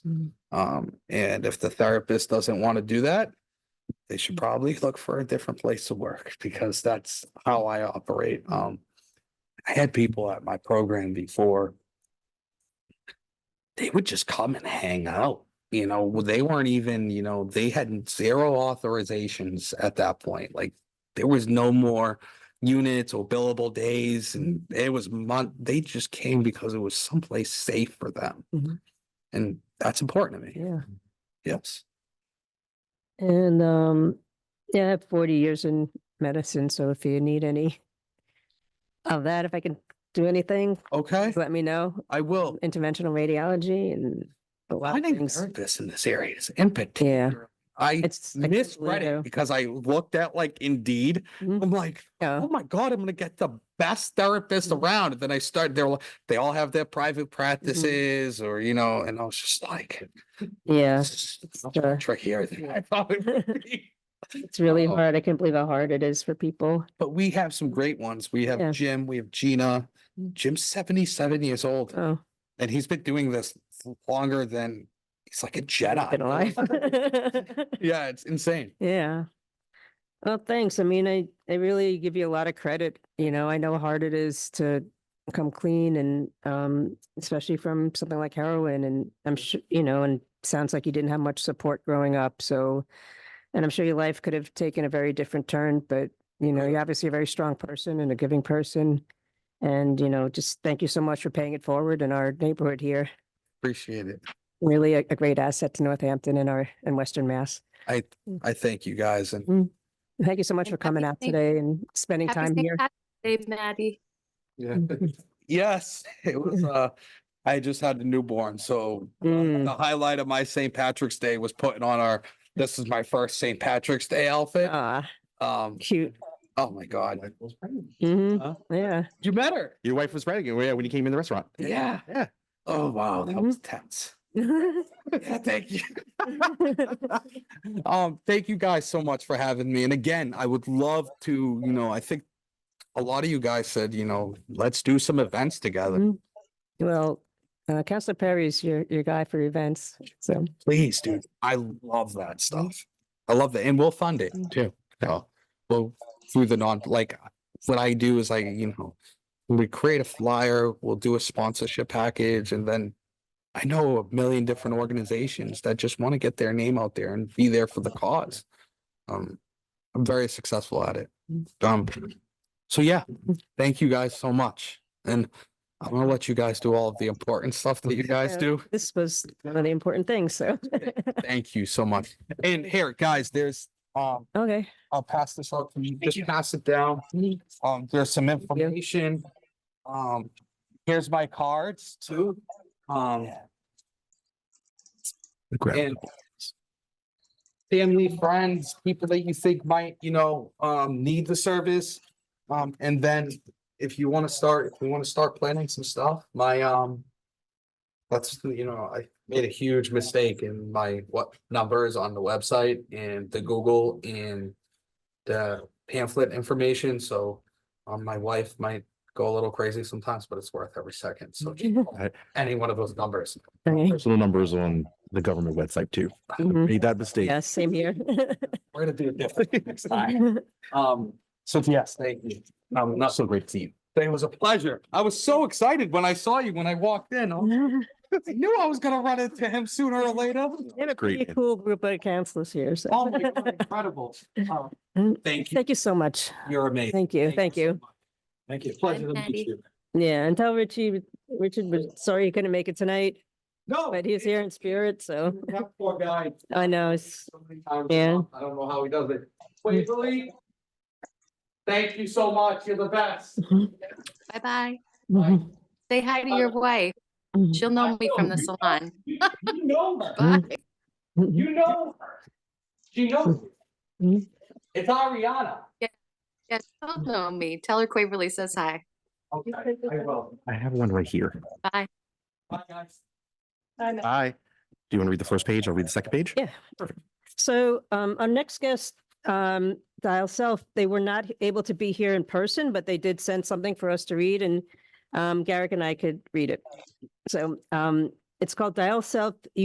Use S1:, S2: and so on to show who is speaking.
S1: Mm.
S2: Um, and if the therapist doesn't want to do that, they should probably look for a different place to work because that's how I operate. Um, I had people at my program before. They would just come and hang out, you know, they weren't even, you know, they had zero authorizations at that point. Like there was no more units or billable days and it was month, they just came because it was someplace safe for them.
S1: Mhm.
S2: And that's important to me.
S1: Yeah.
S2: Yes.
S1: And um, yeah, I have forty years in medicine, so if you need any of that, if I can do anything,
S2: Okay,
S1: just let me know.
S2: I will.
S1: Interventional radiology and a lot of
S2: Finding
S1: things.
S2: therapists in this area is in
S1: Yeah,
S2: particular. I
S1: it's. I can't
S2: misread
S1: believe
S2: it because I looked at like Indeed.
S1: Mhm.
S2: I'm like,
S1: Yeah,
S2: oh my God, I'm gonna get the best therapist
S1: Mhm.
S2: around. And then I started, they're like, they all have their private
S1: Mm-hmm.
S2: practices or, you know, and I was just like,
S1: yeah.
S2: this is
S1: it's,
S2: much
S1: uh,
S2: trickier than I thought it would be.
S1: It's really
S2: Uh-oh.
S1: hard. I can't believe how hard it is for people.
S2: But we have some great ones. We
S1: Yeah.
S2: have Jim, we have Gina.
S1: Mm.
S2: Jim's seventy-seven years old
S1: Oh,
S2: and he's been doing this longer than, he's like a Jedi.
S1: been alive.
S2: Yeah, it's insane.
S1: Yeah. Well, thanks. I mean, I, I really give you a lot of credit. You know, I know how hard it is to come clean and, um, especially from something like heroin and I'm sure, you know, and sounds like you didn't have much support growing up. So, and I'm sure your life could have taken a very different turn, but you know, you're obviously a very strong person and a giving person. And, you know, just thank you so much for paying it forward in our neighborhood here.
S2: Appreciate it.
S1: Really a, a great asset to Northampton and our, and Western Mass.
S2: I,
S1: Mm.
S2: I thank you guys and
S1: Thank you so much
S3: And
S1: for coming
S3: happy
S1: out
S3: Saint-
S1: today and spending
S3: Happy
S1: time
S3: St.
S1: here.
S3: Patrick's Day, Maddie.
S2: yes, it was, uh, I just had a newborn, so
S1: Mm.
S2: the highlight of my St. Patrick's Day was putting on our, this is my first St. Patrick's Day outfit.
S1: Ah,
S2: Um,
S1: cute.
S2: oh my God.
S1: hmm
S2: Huh?
S1: Yeah.
S2: Mm-hmm. You met her.
S4: Your wife was pregnant yeah, when you came in the restaurant.
S2: Yeah.
S4: Yeah.
S2: Oh, wow, that
S1: Mhm.
S2: was tense. Yeah, Thank you. Um, thank you guys so much for having me. And again, I would love to, you know, I think a lot of you guys said, you know, let's do some events together.
S1: Mhm. Well, uh, Counselor Perry's your, your guy for events. So,
S2: Please, dude. I love that stuff. I love that. And we'll fund it too. So, well, through the non, like, what I do is like, you know, we create a flyer, we'll do a sponsorship package and then I know a million different organizations that just want to get their name out there and be there for the cause. Um, I'm very successful at it. Um, so yeah, thank you guys so much. And I'm gonna let you guys do all of the important stuff that you guys
S1: Yeah.
S2: do.
S1: this was one of the important things. So,
S2: Thank you so much. And here, guys, there's, um,
S1: okay.
S2: I'll pass this out to you. Just pass it down. Um, there's some
S1: you.
S2: information. Um, here's my cards too. Um, and family, friends, people that you think might, you know, um, need the service. Um, and then if you want to start, if you want to start planning some stuff, my, um, that's, you know, I made a huge mistake in my what numbers on the website and the Google and the pamphlet information, so, um, my wife might go a little crazy sometimes, but it's worth every second, so just any one of those numbers.
S1: Okay.
S4: Personal numbers on the government website too.
S1: Mhm.
S4: Made that mistake.
S1: Yeah, same here.
S2: We're gonna do it differently next time. Um, so yes, thank you. Um, not so great team. It was a pleasure. I was so excited when I saw you when I walked in. Oh, I was- I knew I was gonna run into him sooner or later.
S1: They have a
S4: Great,
S1: pretty
S4: man.
S1: cool group of counselors here. So,
S2: Oh my God, incredible. Um, Thank you.
S1: thank you so much.
S2: You're amazing.
S1: Thank you. Thank
S2: so
S1: you.
S2: much. Thank you. Pleasure to meet
S3: Maddie.
S2: you.
S1: Yeah. And tell Richie, Richard was sorry he couldn't make it tonight,
S2: No.
S1: but he's here in spirit. So,
S2: That poor guy.
S1: I know. It's,
S2: So many times
S1: Yeah.
S2: now. I don't know how he does it. Waverly. Thank you so much. You're the best.
S3: Bye-bye.
S2: Bye.
S3: Say hi to your wife. She'll know me from the salon.
S2: You you know her.
S1: Mm.
S3: Bye.
S2: You know her. She knows.
S1: Mm-hmm.
S2: you. It's Ariana.
S3: Yeah, she'll know me. Tell her Quaverly says hi.
S2: Okay, I will.
S4: I have one right here.
S3: Bye.
S2: Bye, guys.
S4: Hi. Do you want to read the first page? I'll read the second page.
S1: Yeah. So um, our next guest, um, Dial Self, they were not h- able to be here in person, but they did send something for us to read and um, Garrick and I could read it. So um, it's called Dial Self